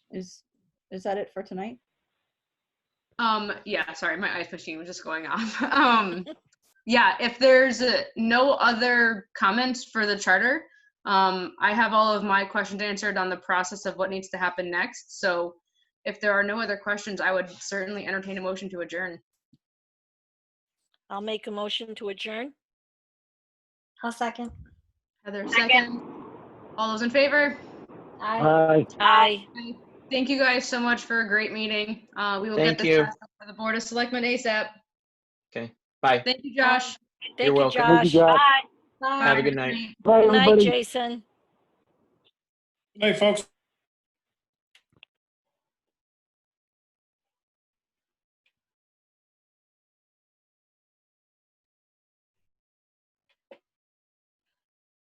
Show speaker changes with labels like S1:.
S1: Is, is that it for tonight?
S2: Um, yeah, sorry, my ice machine was just going off. Um, yeah, if there's uh, no other comments for the charter, um, I have all of my questions answered on the process of what needs to happen next. So if there are no other questions, I would certainly entertain a motion to adjourn.
S3: I'll make a motion to adjourn.
S4: I'll second.
S2: Heather, second. All those in favor?
S4: Aye.
S5: Aye.
S3: Aye.
S2: Thank you guys so much for a great meeting. Uh, we will get
S6: Thank
S2: this
S6: you.
S2: passed up for the Board of Selectmen ASAP.
S6: Bye.
S2: Thank you, Josh.
S3: Thank you,
S6: welcome.
S5: Thank you,
S3: Josh.
S5: Josh.
S4: Bye.
S6: Have a good night.
S2: everybody.
S5: Bye,
S3: Good night,
S5: everybody.
S3: Jason.
S7: Hey, folks.